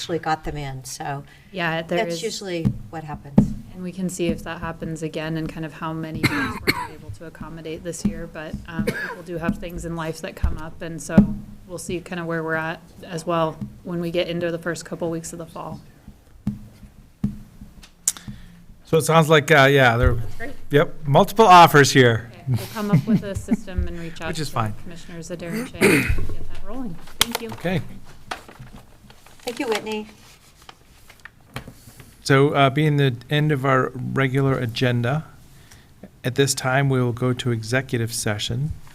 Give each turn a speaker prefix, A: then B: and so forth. A: actually got them in, so
B: Yeah, there
A: that's
B: is,
A: usually what happens.
B: and we can see if that happens again and kind of how many things we're able to accommodate this year, but um, people do have things in life that come up, and so we'll see kind of where we're at as well when we get into the first couple weeks of the fall.
C: So it sounds like, uh, yeah, there,
B: Great.
C: yep, multiple offers here.
B: Okay, We'll come up with a system and reach out.
C: Which is
B: to
C: fine.
B: Commissioner Zadar and Chang and get that rolling. Thank you.
C: Okay.
A: Thank you, Whitney.
C: So uh, being the end of our regular agenda, at this time, we will go to executive session